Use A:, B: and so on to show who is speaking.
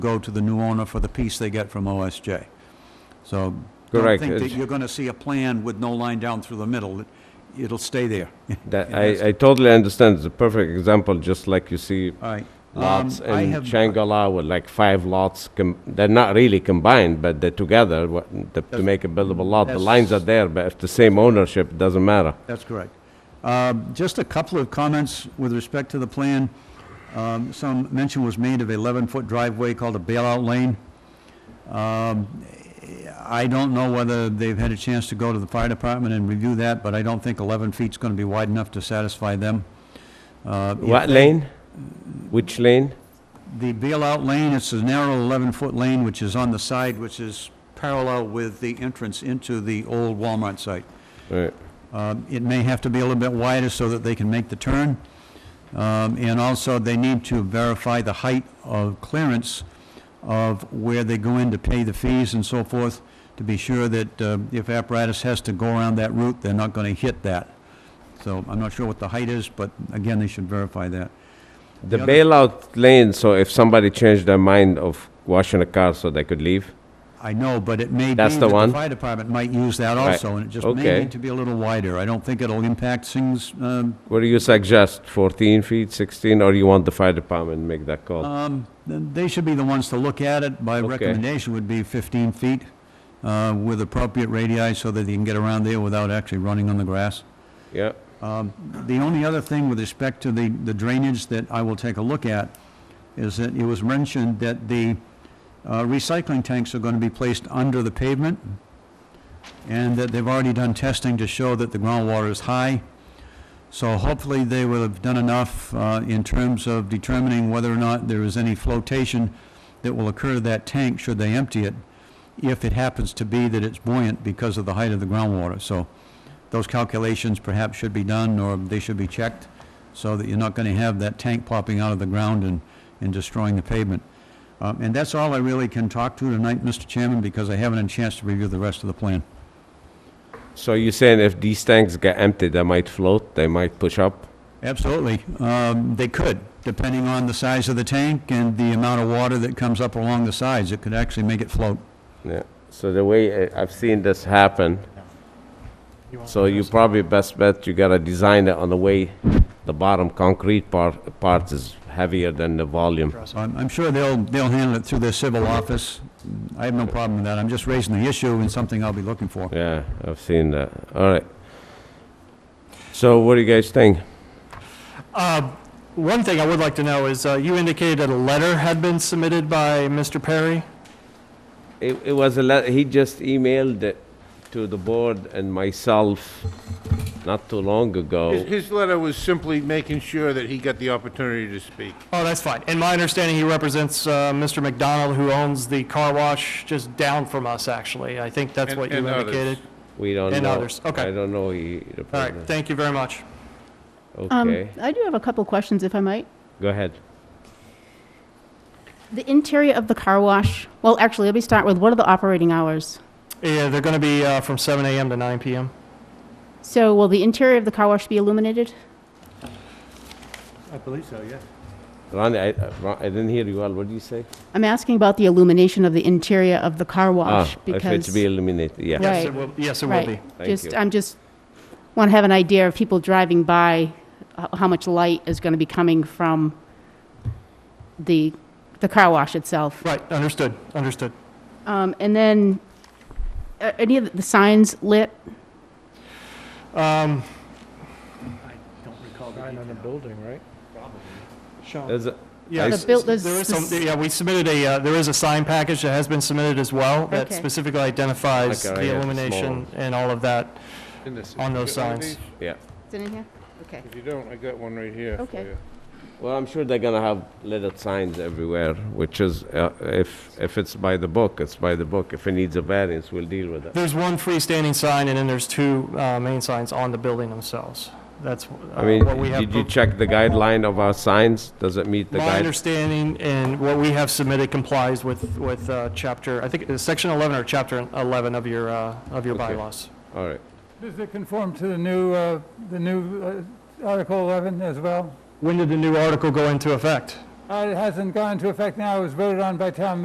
A: go to the new owner for the piece they get from OSJ. So don't
B: Correct.
A: think that
B: It's-
A: you're going to see a plan with no line down through the middle. It- It'll stay there.
B: That,
A: Yes.
B: I, I totally understand. It's a perfect example, just like you see
A: All right. Um,
B: lots
A: I
B: in
A: have-
B: Shangri-La with like five lots. Com- they're not really combined, but they're together wha- the, to make a buildable lot. The lines are
A: that's-
B: there, but if the same ownership, it doesn't matter.
A: That's correct. Um, Just a couple of comments with respect to the plan. Um, Some mention was made of 11-foot driveway called a bailout lane. Um, I don't know whether they've had a chance to go to the fire department and review that, but I don't think 11 feet's going to be wide enough to satisfy them. Uh, if
B: What
A: they-
B: lane? Which lane?
A: The bailout lane, it's a narrow 11-foot lane which is on the side, which is parallel with the entrance into the old Walmart site.
B: Right.
A: Um, It may have to be a little bit wider so that they can make the turn. Um, And also, they need to verify the height of clearance of where they go in to pay the fees and so forth, to be sure that uh, if apparatus has to go around that route, they're not going to hit that. So I'm not sure what the height is, but again, they should verify that.
B: The
A: The other-
B: bailout lane, so if somebody changed their mind of washing a car so they could leave?
A: I know, but it may be
B: That's
A: that
B: the
A: the
B: one?
A: fire department might use that
B: Right.
A: also, and it just may
B: Okay.
A: need to be a little wider. I don't think it'll impact things um,
B: What do you suggest, 14 feet, 16, or you want the fire department to make that call?
A: Um, then They should be the ones to look at it. My
B: Okay.
A: recommendation would be 15 feet uh, with appropriate radii so that you can get around there without actually running on the grass.
B: Yeah,
A: The only other thing with respect to the the drainage that I will take a look at is that it was mentioned that the uh, recycling tanks are going to be placed under the pavement, and that they've already done testing to show that the groundwater is high. So hopefully, they will have done enough uh, in terms of determining whether or not there is any flotation that will occur to that tank should they empty it, if it happens to be that it's buoyant because of the height of the groundwater. So those calculations perhaps should be done, or they should be checked, so that you're not going to have that tank popping out of the ground and, and destroying the pavement. Um, And that's all I really can talk to tonight, Mr. Chairman, because I haven't had a chance to review the rest of the plan.
B: so you're saying if these tanks get empty, they might float, they might push up?
A: Absolutely. Um, They could, depending on the size of the tank and the amount of water that comes up along the sides. It could actually make it float.
B: Yeah, so the way I- I've seen this happen, so you probably best bet you gotta design it on the way the bottom concrete part, part is heavier than the volume.
A: So I'm, I'm sure they'll, they'll handle it through their civil office. I have no problem with that. I'm just raising the issue and something I'll be looking for.
B: Yeah, I've seen that, all right. So what do you guys think?
C: Uh, One thing I would like to know is, uh, you indicated a letter had been submitted by Mr. Perry?
B: It, it was a let, he just emailed it to the board and myself not too long
D: His,
B: ago.
D: his letter was simply making sure that he got the opportunity to speak.
C: Oh, that's fine. In my understanding, he represents uh, Mr. McDonald, who owns the car wash just down from us, actually. I think that's
D: And-
C: what you
D: and others.
C: indicated.
B: We don't know.
C: And others, okay.
B: I don't know he.
C: All right, thank you very much.
B: Okay,
E: Um, I do have a couple questions, if I might.
B: go ahead.
E: The interior of the car wash, well, actually, let me start with, what are the operating hours?
C: Yeah, they're going to be uh, from 7 AM to 9 PM.
E: So will the interior of the car wash be illuminated?
D: I believe so, yeah.
B: Ronnie, I, uh, Ron- I didn't hear you well. What did you say?
E: I'm asking about the illumination of the interior of the car wash,
B: Ah,
E: because...
B: If it's be eliminated, yeah.
C: Yes,
E: Right.
C: it will- Yes, it will be.
E: Right,
B: Thank
E: just, uh,
B: you.
E: I'm just, want to have an idea of people driving by, h- how much light is going to be coming from the, the car wash itself.
C: Right, understood, understood.
E: Um, And then, are any of the signs lit?
C: Um,
B: There's a-
C: Yeah,
B: I-
C: s-
E: built-
C: s- there
E: there's
C: is some,
E: this-
C: yeah, we submitted a, uh, there is a sign package that has been submitted as well that
E: Okay.
C: specifically identifies
B: Okay, I
C: the
B: have a
C: illumination and all of that. On those signs.
B: Yeah.
E: Is it in here? Okay.
D: If you don't, I got one right here for
E: Okay.
D: you.
B: Well, I'm sure they're gonna have little signs everywhere, which is, uh, if, if it's by the book, it's by the book. If it needs a variance, we'll deal with it.
C: There's one freestanding sign and then there's two uh, main signs on the building themselves. That's
B: I
C: uh,
B: mean,
C: what we have.
B: did you
C: pro-
B: check the guideline of our signs? Does it meet the
C: My
B: guide?
C: understanding and what we have submitted complies with, with uh, chapter, I think it's section 11 or chapter 11 of your, uh, of your
B: Okay.
C: bylaws.
B: All right.
F: Does it conform to the new, uh, the new uh, Article 11 as well?
C: When did the new article go into effect?
F: Uh, It hasn't gone into effect now, it was voted on by town